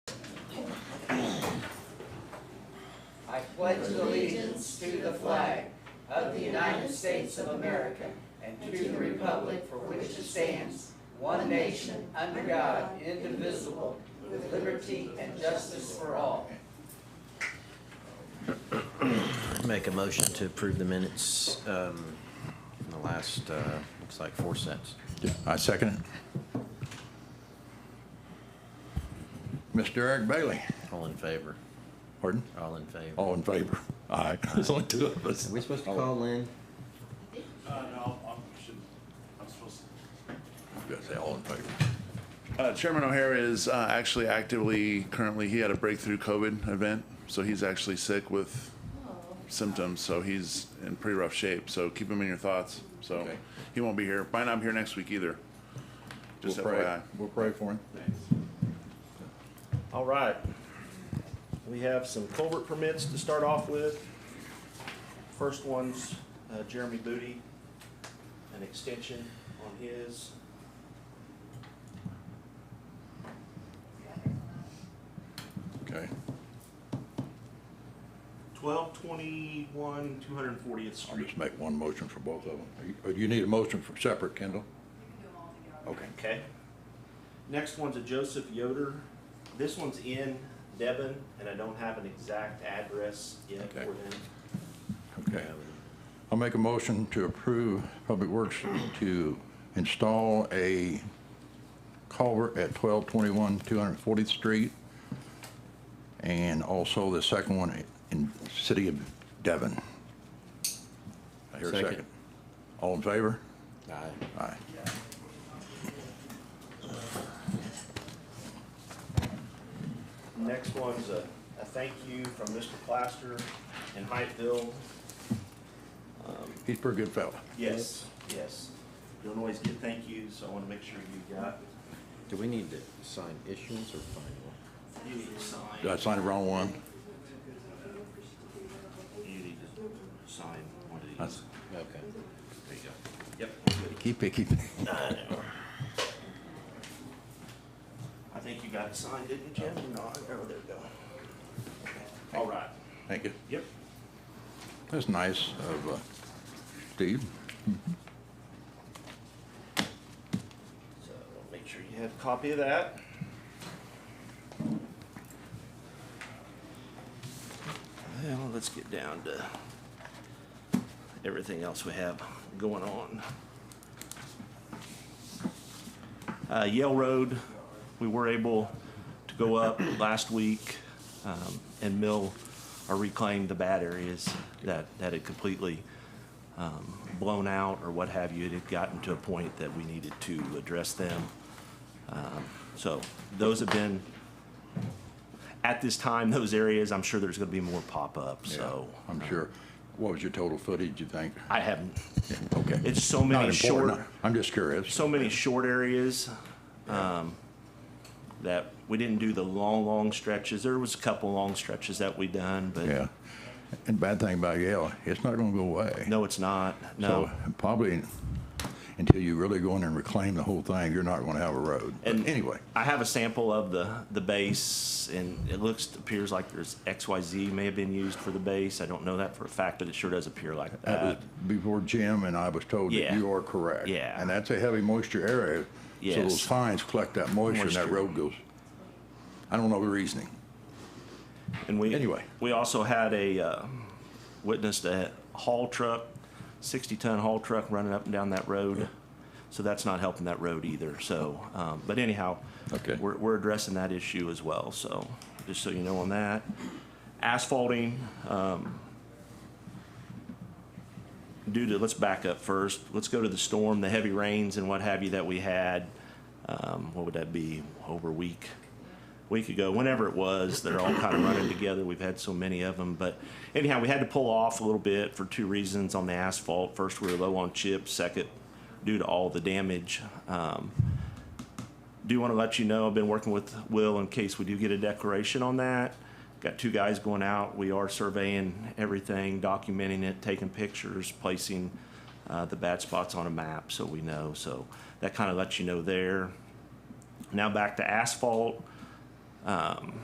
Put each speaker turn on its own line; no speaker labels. I pledge allegiance to the flag of the United States of America and to the republic for which it stands, one nation, under God, indivisible, with liberty and justice for all.
Make a motion to approve the minutes um, in the last, uh, looks like four cents.
Yeah, I second it. Mr. Eric Bailey.
All in favor?
Pardon?
All in favor?
All in favor? Aye. There's only two of us.
Are we supposed to call Lynn?
Uh, no, I'm, should, I'm supposed to.
Just say all in favor.
Uh, Chairman O'Hare is uh, actually actively, currently, he had a breakthrough COVID event, so he's actually sick with symptoms, so he's in pretty rough shape, so keep him in your thoughts, so.
Okay.
He won't be here, might not be here next week either. Just
We'll pray-
FYI.
We'll pray for him.
All right. We have some culvert permits to start off with. First one's uh, Jeremy Booty, an extension on his.
Okay.
Twelve twenty-one, two hundred and fortieth
I'll
Street.
just make one motion for both of them. Are you- Or do you need a motion for separate, Kendall? Okay.
Okay. Next one's a Joseph Yoder. This one's in Devon, and I don't have an exact address yet for
Okay.
them.
Okay. I'll make a motion to approve Public Works to install a culvert at 1221 240th Street. And also the second one in City of Devon. I hear a
Second.
second. All in favor?
Aye.
Aye.
Next one's a, a thank you from Mr. Plaster in Hyattville.
He's a pretty good fella.
Yes, yes. Don't always get thank yous, so I want to make sure you got,
Do we need to sign issuance or final?
you need to sign.
Did I sign the wrong one?
You need to sign one of
That's-
these.
Okay.
There you go. Yep.
Keep picky. picky.
I think you got it signed, didn't you, Jim? No, oh, there we go. All right.
Thank you.
Yep.
That's nice of uh, Steve.
So make sure you have a copy of that. Well, let's get down to everything else we have going on. Uh, Yale Road, we were able to go up last week, um, and mill or reclaim the bad areas that, that had completely, um, blown out or what have you, it had gotten to a point that we needed to address them. Um, So those have been, at this time, those areas, I'm sure there's gonna be more pop-up, so. uh,
Yeah, I'm sure. What was your total footage, you think?
I haven't,
Okay.
it's so many
Not important.
short,
I'm just curious.
so many short areas, um, that we didn't do the long, long stretches. There was a couple long stretches that we done, but
Yeah. And bad thing about Yale, it's not gonna go away.
no, it's not, no.
So Probably until you really go in and reclaim the whole thing, you're not gonna have a road. But
And-
anyway,
I have a sample of the, the base, and it looks, appears like there's XYZ may have been used for the base. I don't know that for a fact, but it sure does appear like
that was
that.
before Jim and I was told that
uh, Yeah.
you are correct.
Yeah.
And that's a heavy moisture area. So
Yes.
those fines collect that moisture and that
Moisture.
road goes, I don't know the reasoning.
And we,
anyway.
we also had a, uh, witnessed a haul truck, sixty-ton haul truck running up and down that road. So that's not helping that road either, so, um, but anyhow.
Okay.
We're, we're addressing that issue as well, so, just so you know on that. Asphalting, um, due to, let's back up first. Let's go to the storm, the heavy rains and what have you that we had. Um, what would that be? Over a week, week ago, whenever it was. They're all kind of running together. We've had so many of them. But anyhow, we had to pull off a little bit for two reasons on the asphalt. First, we were low on chips. Second, due to all the damage. Um, do want to let you know, I've been working with Will in case we do get a declaration on that. Got two guys going out. We are surveying everything, documenting it, taking pictures, placing uh, the bad spots on a map so we know. So that kind of lets you know there. Now back to asphalt.